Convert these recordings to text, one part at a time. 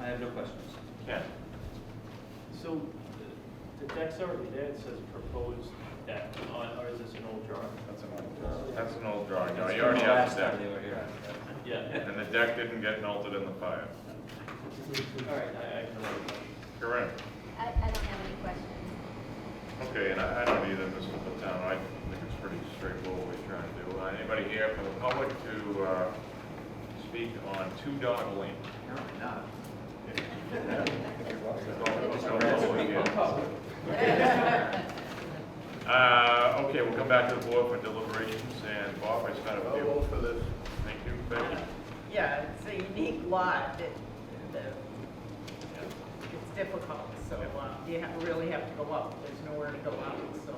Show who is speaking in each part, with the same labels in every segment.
Speaker 1: I have no questions.
Speaker 2: Ken?
Speaker 3: So the- the deck's already there, it says proposed deck, on- or is this an old drawing?
Speaker 4: That's an
Speaker 2: That's an old drawing, no,
Speaker 1: That's
Speaker 2: you
Speaker 1: from
Speaker 2: already
Speaker 1: the
Speaker 2: have
Speaker 1: last
Speaker 2: the
Speaker 1: time
Speaker 2: deck.
Speaker 1: they were here.
Speaker 3: Yeah,
Speaker 2: And the deck didn't get melted in the fire.
Speaker 3: all right, I, I can write that.
Speaker 2: Correct.
Speaker 5: I, I don't have any questions.
Speaker 2: Okay, and I I don't either, Mr. Platown, I think it's pretty straightforward what we're trying to do. Uh, Anybody here from the public to uh, speak on Two Dog Lane? Let's go forward here. Uh, Okay, we'll come back to the board for deliberations, and Bob, I spent a few.
Speaker 4: for this.
Speaker 2: Thank you, Becky.
Speaker 6: Yeah, it's a unique lot, it, the, it's difficult, so, uh, you ha really have to go up, there's nowhere to go out, so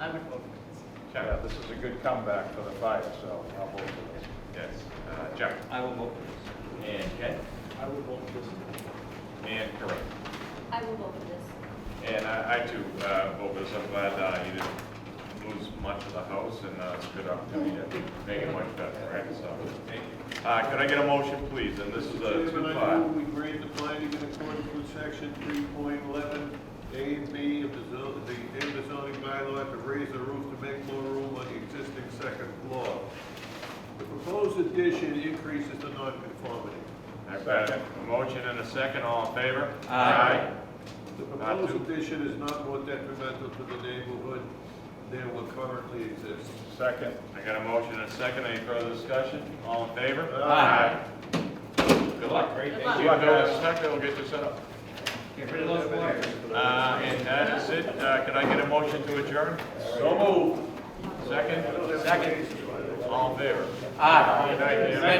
Speaker 6: I would vote for
Speaker 4: Yeah,
Speaker 2: Chuck?
Speaker 4: this is a good comeback for the fire, so I'll vote for this.
Speaker 2: Yes, Uh, Chuck?
Speaker 1: I will vote for
Speaker 2: And Ken?
Speaker 3: I would vote this.
Speaker 2: And correct.
Speaker 5: I will vote for this.
Speaker 2: And I I too, uh, vote for this, I'm glad uh, you didn't lose much of the house, and uh, it's a good opportunity to make it much better, right? So, thank you. Uh, Could I get a motion, please? And this is a
Speaker 7: Chairman, I
Speaker 2: two-part.
Speaker 7: move we grant the finding in accordance with section three point eleven, A and B of the zo- the Denver zoning bylaw to raise the roof to make more room on the existing second floor. The proposed addition increases the nonconformity.
Speaker 2: I've got a motion and a second, all in favor?
Speaker 1: Aye.
Speaker 7: The
Speaker 2: Not to-
Speaker 7: proposed addition is not more detrimental to the neighborhood than what currently exists.
Speaker 2: Second. I got a motion and a second, any further discussion? All in favor?
Speaker 1: Aye.
Speaker 2: Good luck. Great,
Speaker 6: thank
Speaker 2: you. Bill, in a second, we'll get you set up.
Speaker 1: this. Get rid of those wires.
Speaker 2: Uh, And that is it, Uh, could I get a motion to adjourn? So moved. Second? Second. All in favor?
Speaker 1: Aye.
Speaker 2: Good night, Jim.